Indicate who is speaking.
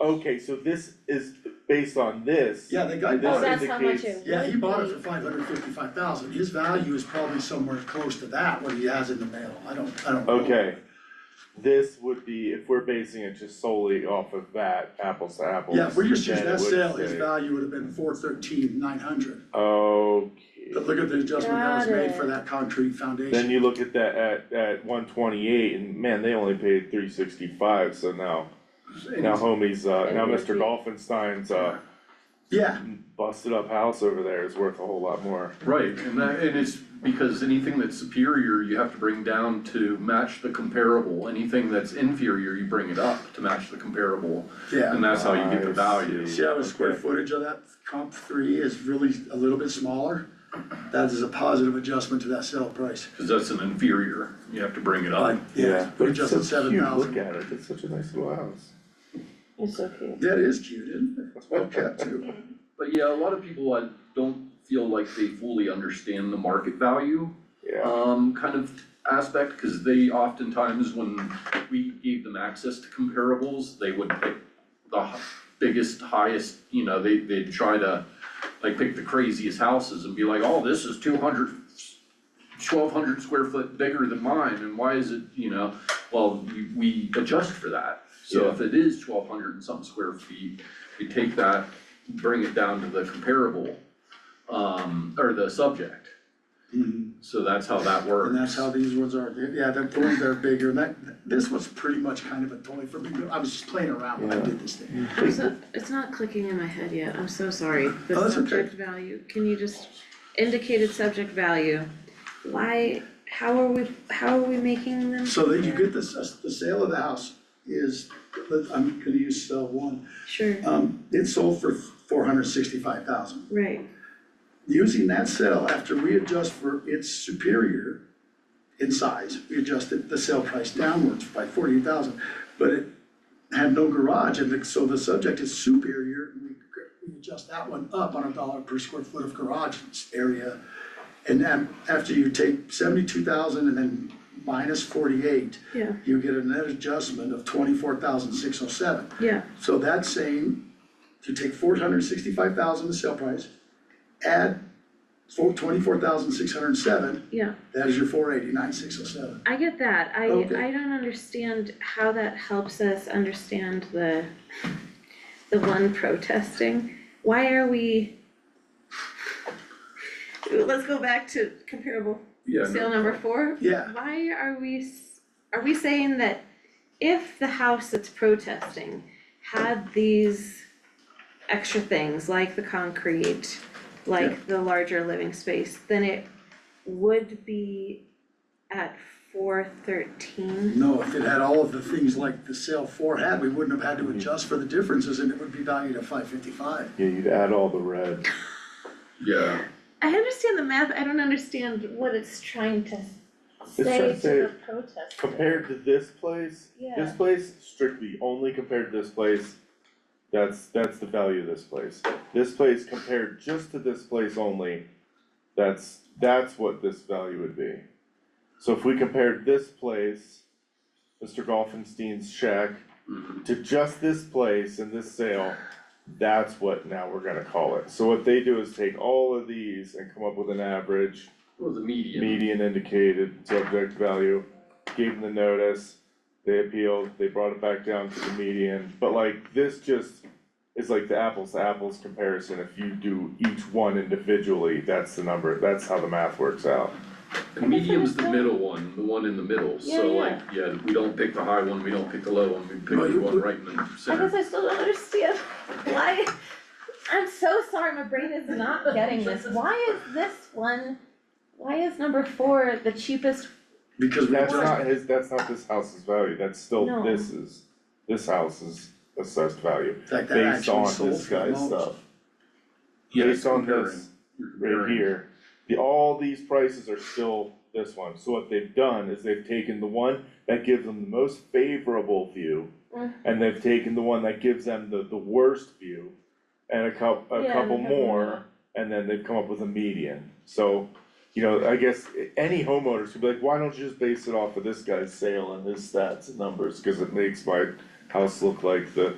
Speaker 1: okay, so this is based on this.
Speaker 2: Yeah, the guy
Speaker 1: This
Speaker 3: Oh,
Speaker 2: bought it,
Speaker 4: that's how much
Speaker 1: indicates-
Speaker 4: it-
Speaker 2: yeah, he bought it for five hundred fifty-five thousand, his value is probably somewhere close to that, what he has in the mail, I don't, I don't know.
Speaker 1: Okay, this would be, if we're basing it just solely off of that, apples to apples.
Speaker 2: Yeah, if we just use
Speaker 1: then it
Speaker 2: that
Speaker 1: would
Speaker 2: sale, his
Speaker 1: say-
Speaker 2: value would have been four thirteen nine hundred, but
Speaker 1: Okay,
Speaker 2: look at the adjustment that was
Speaker 4: Got
Speaker 2: made
Speaker 4: it.
Speaker 2: for that concrete
Speaker 1: then
Speaker 2: foundation.
Speaker 1: you look at that at at one twenty eight and man, they only paid three sixty five, so now, now homies, uh, now Mr. Dolphinstein's uh
Speaker 2: Yeah,
Speaker 1: busted up house over there is worth a whole lot more.
Speaker 5: Right, and that, and it's because anything that's superior, you have to bring down to match the comparable, anything that's inferior, you bring it up to match the comparable.
Speaker 2: yeah.
Speaker 5: And that's how you get the value.
Speaker 2: See how the square
Speaker 1: Okay.
Speaker 2: footage of that comp three is really a little bit smaller? That is a positive adjustment to that sale price.
Speaker 5: Cause that's an inferior, you have to bring it
Speaker 2: But,
Speaker 5: up.
Speaker 2: yeah, we
Speaker 1: But it's so
Speaker 2: adjusted seven
Speaker 1: cute, look
Speaker 2: thousand.
Speaker 1: at it, it's such a nice little house.
Speaker 4: It's so cute.
Speaker 2: That is cute, isn't it? Well kept too.
Speaker 5: But yeah, a lot of people, I don't feel like they fully understand the market value
Speaker 1: Yeah,
Speaker 5: um, kind of aspect, cause they oftentimes, when we gave them access to comparables, they would pick the hi- biggest, highest, you know, they, they'd try to, like, pick the craziest houses and be like, oh, this is 200, 1200 square foot bigger than mine, and why is it, you know, well, we, we adjust for that. So if it is twelve hundred and some square feet, we take that, bring it down to the comparable, um, or the subject.
Speaker 2: Mhm.
Speaker 5: So that's how that works.
Speaker 2: And that's how these ones are, They're- yeah, the ones that are bigger, and that, this was pretty much kind of a toy for me, but I was just playing around when I
Speaker 1: Yeah.
Speaker 2: did this thing.
Speaker 3: I'm so, it's not clicking in my head yet, I'm so sorry,
Speaker 2: Oh,
Speaker 3: the
Speaker 2: that's okay.
Speaker 3: subject value, can you just, indicated subject value, why, how are we, how are we making them?
Speaker 2: So that you get this, the sale of the house is, I'm gonna use cell one,
Speaker 3: Sure,
Speaker 2: um, it sold for four hundred sixty-five thousand.
Speaker 3: right,
Speaker 2: using that cell, after we adjust for its superior in size, we adjusted the sale price downwards by forty thousand, but it had no garage, and the- so the subject is superior, and we, we adjust that one up on a dollar per square foot of garage area. And then, after you take seventy-two thousand and then minus forty-eight,
Speaker 3: yeah,
Speaker 2: you get a net adjustment of twenty-four thousand six oh seven.
Speaker 3: yeah,
Speaker 2: So that's saying to take four hundred sixty-five thousand, the sale price, add four, twenty-four thousand six hundred and seven,
Speaker 3: yeah,
Speaker 2: that is your four eighty-nine, six oh seven.
Speaker 3: I get that, I,
Speaker 2: Okay.
Speaker 3: I don't understand how that helps us understand the, the one protesting, why are we? Let's go back to comparable
Speaker 5: Yeah, no.
Speaker 3: sale number four,
Speaker 2: Yeah,
Speaker 3: Why are we, s- are we saying that if the house that's protesting had these extra things, like the concrete, like the larger living space, then it would be at four thirteen?
Speaker 2: no, if it had all of the things like the sale four had, we wouldn't have
Speaker 1: Mm-hmm.
Speaker 2: had to adjust for the differences and it would be valued at five fifty-five.
Speaker 1: yeah, you'd add all the red.
Speaker 5: Yeah,
Speaker 3: I understand the math, I don't understand what it's trying to
Speaker 1: trying
Speaker 3: say
Speaker 1: to
Speaker 3: to
Speaker 1: say,
Speaker 3: the protesters.
Speaker 1: Compared to this place, this
Speaker 3: Yeah.
Speaker 1: place strictly only compared to this place, that's, that's the value of this place. This place compared just to this place only, that's, that's what this value would be. So if we compared this place, Mr. Golfenstein's shack,
Speaker 5: Mhm.
Speaker 1: to just this place and this sale, that's what now we're gonna call it. So what they do is take all of these and come up with an average,
Speaker 5: well, the median,
Speaker 1: median indicated subject value, gave them the notice, they appealed, they brought it back down to the median, but like, this just is like the apples to apples comparison, if you do each one individually, that's the number, that's how the math works out.
Speaker 3: I
Speaker 5: the
Speaker 3: guess I
Speaker 5: medium's the
Speaker 3: understand.
Speaker 5: middle one, the one in the middle,
Speaker 3: Yeah,
Speaker 5: so
Speaker 3: yeah.
Speaker 5: like, yeah, we don't pick the high one, we don't pick the low one, we pick
Speaker 2: No,
Speaker 5: the
Speaker 2: you
Speaker 5: one
Speaker 2: put-
Speaker 5: right in the
Speaker 3: I
Speaker 5: center.
Speaker 3: guess I still don't understand why, I'm so sorry, my brain is not getting this, why is this one, why is number four the cheapest?
Speaker 2: Because we
Speaker 1: That's
Speaker 2: adjusted,
Speaker 1: not his, that's not this house's value, that's still
Speaker 3: No.
Speaker 1: this is, this house's assessed value,
Speaker 2: in fact, that
Speaker 1: based
Speaker 2: actually
Speaker 1: on
Speaker 2: sold
Speaker 1: this
Speaker 2: for the
Speaker 1: guy's
Speaker 2: most.
Speaker 1: stuff.
Speaker 5: Yeah, it's
Speaker 1: Based on
Speaker 5: comparing.
Speaker 1: this,
Speaker 5: You're
Speaker 1: right
Speaker 5: comparing.
Speaker 1: here, the, all these prices are still this one, so what they've done is they've taken the one that gives them the most favorable view.
Speaker 3: Mm.
Speaker 1: And they've taken the one that gives them the, the worst view, and a coup, a
Speaker 3: Yeah, and a
Speaker 1: couple
Speaker 3: couple more.
Speaker 1: more, and then they've come up with a median, so. You know, I guess i- any homeowners could be like, why don't you just base it off of this guy's sale and his stats and numbers, cause it makes my house look like the